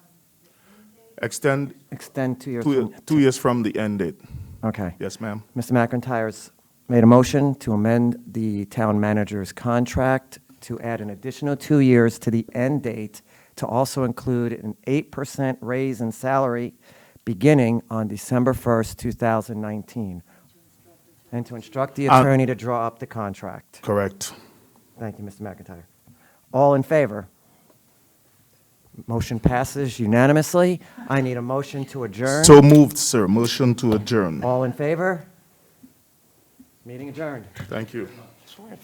extend extend two years two from, two years from the end date. okay. Yes, ma'am. Mr. McIntyre's made a motion to amend the town manager's contract to add an additional two years to the end date to also include an 8% raise in salary beginning on December 1st, 2019, and to instruct the Uh, attorney to draw up the contract. Correct. Thank you, Mr. McIntyre. All in favor? Motion passes unanimously. I need a motion to adjourn. So moved, sir. Motion to adjourn. All in favor? Meeting adjourned. Thank you.